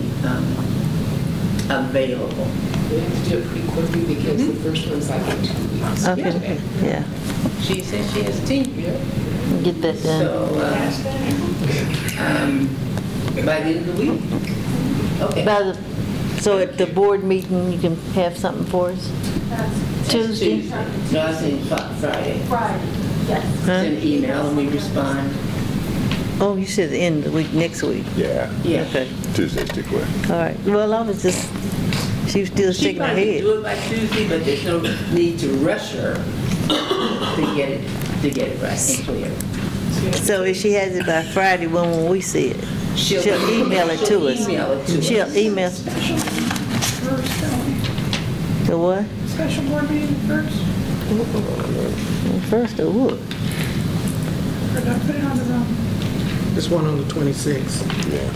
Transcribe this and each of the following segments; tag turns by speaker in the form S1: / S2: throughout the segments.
S1: um, available.
S2: We have to do it pretty quickly because the first one's like in two weeks.
S3: Okay, yeah.
S1: She said she has tenure,
S3: Get that done.
S1: so uh, um, by the end of the week. Okay.
S3: By the, so at the board meeting, you can have something for us?
S1: That's
S3: Tuesday?
S1: No, I said Fri- Friday.
S4: Friday, yes.
S1: Send an email and we respond.
S3: Oh, you said the end of the week, next week.
S5: Yeah,
S1: Yeah.
S3: Okay,
S5: Tuesday's too quick.
S3: all right. Well, I was just, she was still
S1: She
S3: shaking her
S1: probably
S3: head.
S1: do it by Tuesday, but there's no need to rush her to get it, to get it right and clear.
S3: So if she has it by Friday, when will we see it? She'll email it to us.
S1: She'll email it to us.
S3: She'll email,
S6: Special first, don't
S3: the what?
S6: we? special board meeting first,
S3: First of what?
S6: or do I put it on the zone?
S7: There's one on the 26th.
S5: Yeah.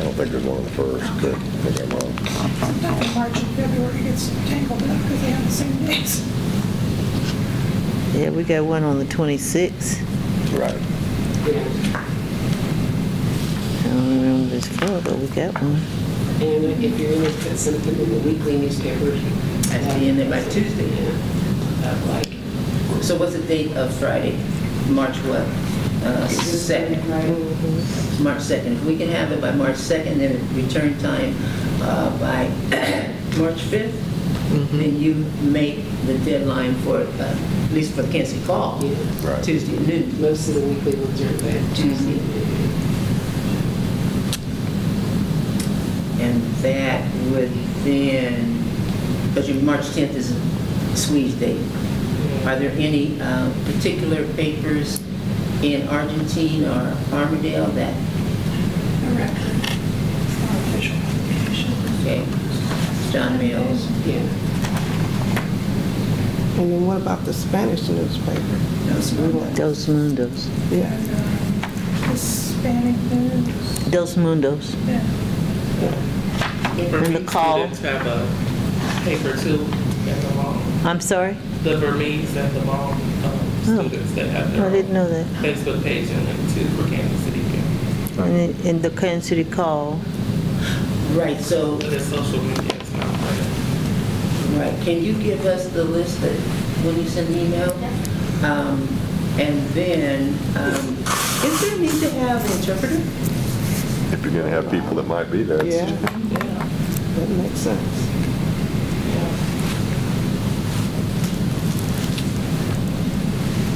S5: I don't think there's one on the first, but I think I'm wrong.
S6: Not in March and February, it gets tangled up because they have the same dates.
S3: Yeah, we got one on the 26th.
S5: Right.
S2: Yeah.
S3: I don't remember this far, but we got one.
S2: And if you're going to put something in the weekly newspaper.
S1: At the end of by Tuesday.
S2: Yeah. Of like,
S1: So what's the date of Friday? March what? Uh, Second, March 2nd. If we can have it by March 2nd, then return time uh, by March 5th, then you make the deadline for, uh, at least for Kansas Call,
S2: Yeah.
S5: Right.
S1: Tuesday at noon.
S2: Most of the weekly ones are by Tuesday.
S1: And that would then, because your March 10th is a squeeze date. Are there any uh, particular papers in Argentine or Armadale that,
S6: Correct. It's not official publication.
S1: okay, John Mills?
S2: Yeah.
S8: And then what about the Spanish newspaper?
S1: Those
S3: Dos Mundos.
S8: Yeah.
S6: And, uh, Hispanic news.
S3: Dos Mundos.
S6: Yeah.
S3: And the call.
S9: Students have a paper too at the mall.
S3: I'm sorry?
S9: The Burmese at the mall, um,
S3: Oh.
S9: students that have
S3: I
S9: their
S3: didn't
S9: own
S3: know that.
S9: Facebook page and link to for Kansas City.
S3: And in- in the Kansas City Call,
S1: Right, so,
S9: But it's social media, it's not part of.
S1: right, can you give us the list that, when you send an email? Um, And then, um, is there a need to have an interpreter?
S5: If you're gonna have people that might be there,
S8: Yeah,
S5: it's
S8: that makes sense.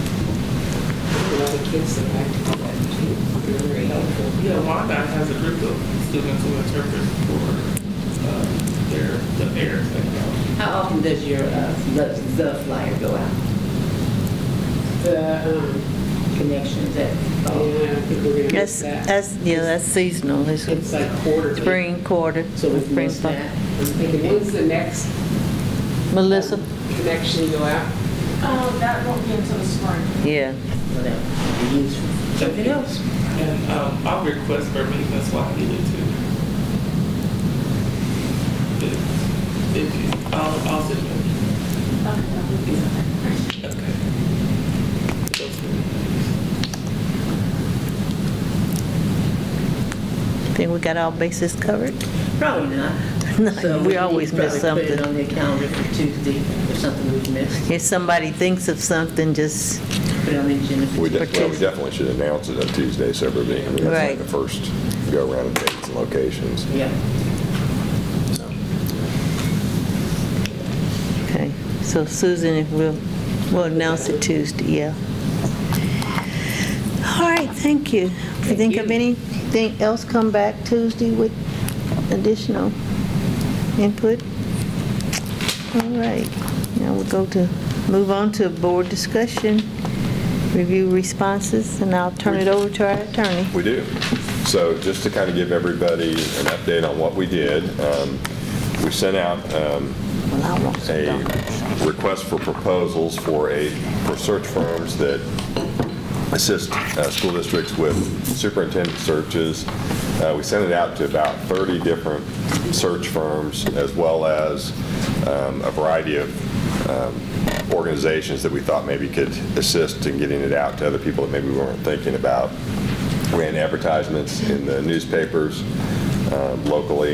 S2: A lot of kids that like to do that too. They're very helpful.
S9: Yeah, Wanda has a group of students who interpret for uh, their, the parents that go.
S1: How often does your, uh, the the flyer go out?
S2: The, um,
S1: connections at
S2: yeah, I think we're going to miss
S3: that's,
S2: that.
S3: that's, yeah, that's seasonal, it's
S2: It's like quarterly.
S3: spring quarter.
S1: So we've
S3: spring
S1: missed
S3: fall.
S1: that.
S2: I'm thinking, when's the next um,
S3: Melissa?
S2: connection go out?
S4: Um, that won't be until the spring.
S3: Yeah.
S1: Whatever. We use Something else.
S9: And um, I'll request Burmese and Swahili too. If- If you, I'll, I'll send you. Okay. Those two things.
S3: Think we got all bases covered?
S1: Probably not.
S3: No,
S1: So
S3: we always
S1: need to
S3: miss
S1: probably Put it
S3: something.
S1: on the calendar for Tuesday or something we've missed.
S3: If somebody thinks of something, just,
S1: Put it on the agenda. for
S5: we de-
S1: Tuesday.
S5: well, we definitely should announce it on Tuesday, so everybody, I mean, that's like
S3: Right.
S5: the first go-around of dates and locations.
S1: Yeah.
S3: okay. So Susan, if we'll, we'll announce it Tuesday, yeah. All right, thank you. If you think of anything else, come back Tuesday with additional input. All right, now we'll go to, move on to board discussion, review responses, and I'll turn it over to our attorney.
S5: We do. So just to kind of give everybody an update on what we did, um, we sent out um,
S3: Well, I want some
S5: a
S3: documents.
S5: request for proposals for a, for search firms that assist uh, school districts with superintendent searches. Uh, We sent it out to about 30 different search firms, as well as um, a variety of um, organizations that we thought maybe could assist in getting it out to other people that maybe we weren't thinking about. Ran advertisements in the newspapers uh, locally